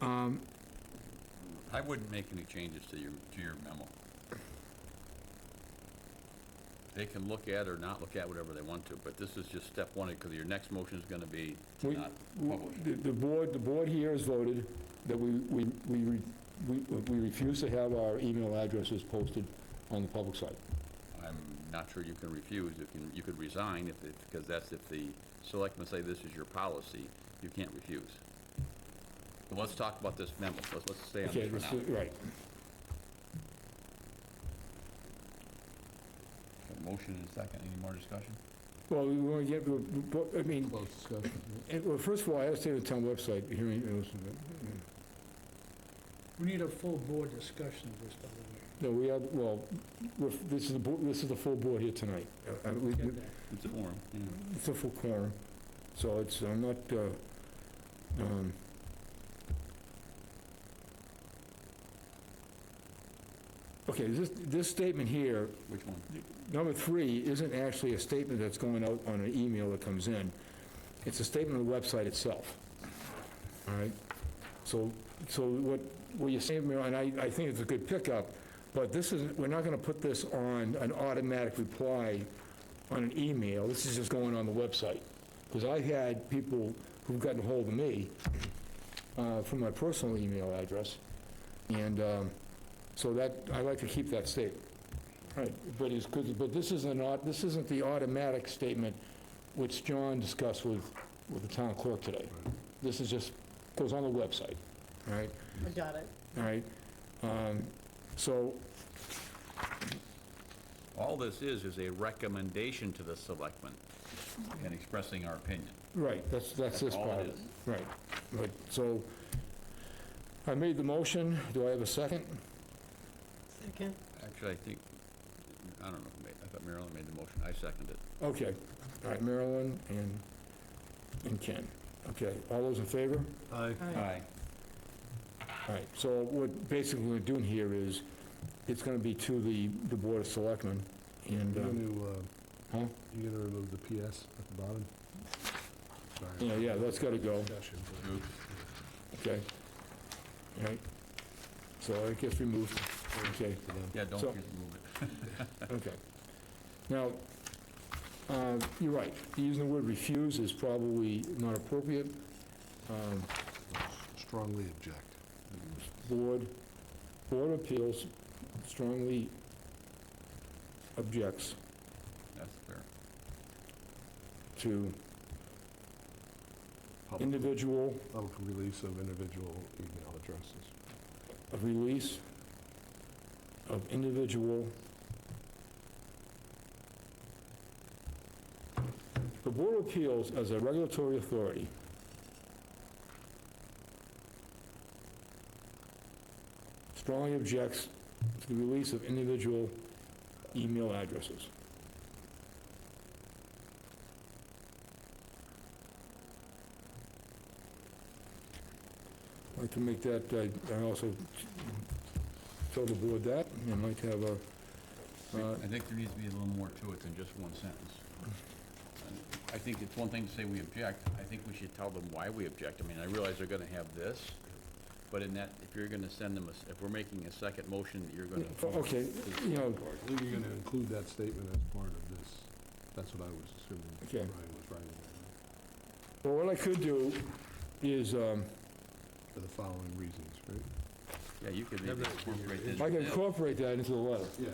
Um, I wouldn't make any changes to your, to your memo. They can look at or not look at whatever they want to, but this is just step one, because your next motion is gonna be to We- not w- publish. The the board, the board here has voted that we, we, we re- we we refuse to have our email addresses posted on the public site. I'm not sure you can refuse, you can, you could resign if, it because that's if the selectmen say this is your policy, you can't refuse. But let's talk about this memo, let's, let's stay on Okay, this for let's now. do- right. Motion and second, any more discussion? Well, we want to get, we- we- I mean, Close discussion. it- well, first of all, I have to say the town website, hearing, it was- We need a full board discussion of this, by the no, we have, well, we're- this is the, bo- this is the full board here tonight. Uh, uh, we- way. we- Get that. It's a forum, yeah. It's a full quorum, so it's, I'm not, uh, um, okay, this, this statement here, Which one? number three, isn't actually a statement that's going out on an email that comes in. It's a statement on the website itself. All right? So, so what, what you're saying, Mayor, and I, I think it's a good pickup, but this is, we're not gonna put this on an automatic reply on an email, this is just going on the website. Because I had people who've gotten hold of me uh, from my personal email address, and um, so that, I like to keep that state. Right, but it's good, but this isn't, au- this isn't the automatic statement which John discussed with, with the town clerk today. This is just, goes on the website, all right? I got it. All right? Um, So, All this is, is a recommendation to the selectmen and expressing our opinion. Right, that's, that's this That's all part. it is. Right, right, so I made the motion, do I have a second? Second. Actually, I think, I don't know, who made- I thought Marilyn made the motion, I seconded it. Okay, all right, Marilyn and, and Ken. Okay, all those in favor? Aye. All right, so what basically we're doing here is, it's gonna be to the, the Board of Selectmen, and, You're um, gonna, uh, huh? you're gonna remove the PS at the bottom? Sorry. Yeah, yeah, that's gotta go, Discussion, but- Oops. okay? All right, so I guess we moved, okay. Yeah, don't So- you move it. Okay. Now, uh, you're right, using the word refuse is probably not appropriate. Um, Strongly object. Board, Board of Appeals strongly objects That's fair. to Public- individual Public release of individual email addresses. of release of individual. The Board of Appeals as a regulatory authority strongly objects to the release of individual email addresses. I'd like to make that, uh, I- I also tell the board that, and I'd like to have a, uh, I think there needs to be a little more to it than just one sentence. And I think it's one thing to say we object, I think we should tell them why we object. I mean, I realize they're gonna have this, but in that, if you're gonna send them, a s- if we're making a second motion, you're gonna. okay, you know, I think you're gonna include that statement as part of this. That's what I was assuming Okay. Ryan was writing. there. well, what I could do is, um, For the following reasons, right? Yeah, you could Have maybe that- incorporate I this. I can incorporate that into the letter. Yeah.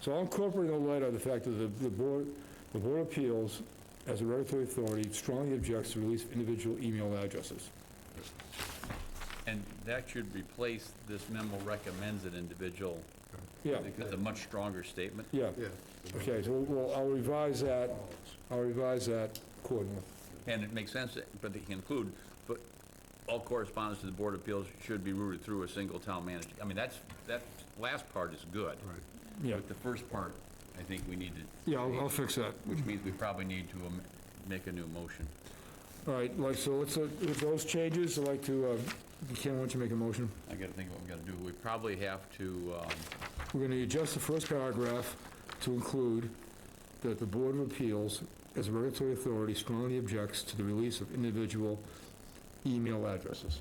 So I'm incorporating the letter, the fact that the the Board, the Board of Appeals, as a regulatory authority, strongly objects to release of individual email addresses. And that should replace this memo recommends an individual, Yeah, because a much stronger statement. yeah, Yeah. okay, so we'll I'll revise that, I'll revise that accordingly. And it makes sense, but they conclude, but all correspondence to the Board of Appeals should be routed through a single town manager. I mean, that's, that last part is good. Right. Yeah, But the first part, I think we need to. yeah, I'll I'll fix that. Which means we probably need to am- make a new motion. All right, like, so let's, uh, with those changes, I'd like to, uh, Ken, why don't you make a motion? I gotta think what we gotta do. We probably have to, um, We're going to adjust the first paragraph to include that the Board of Appeals, as a regulatory authority, strongly objects to the release of individual email addresses.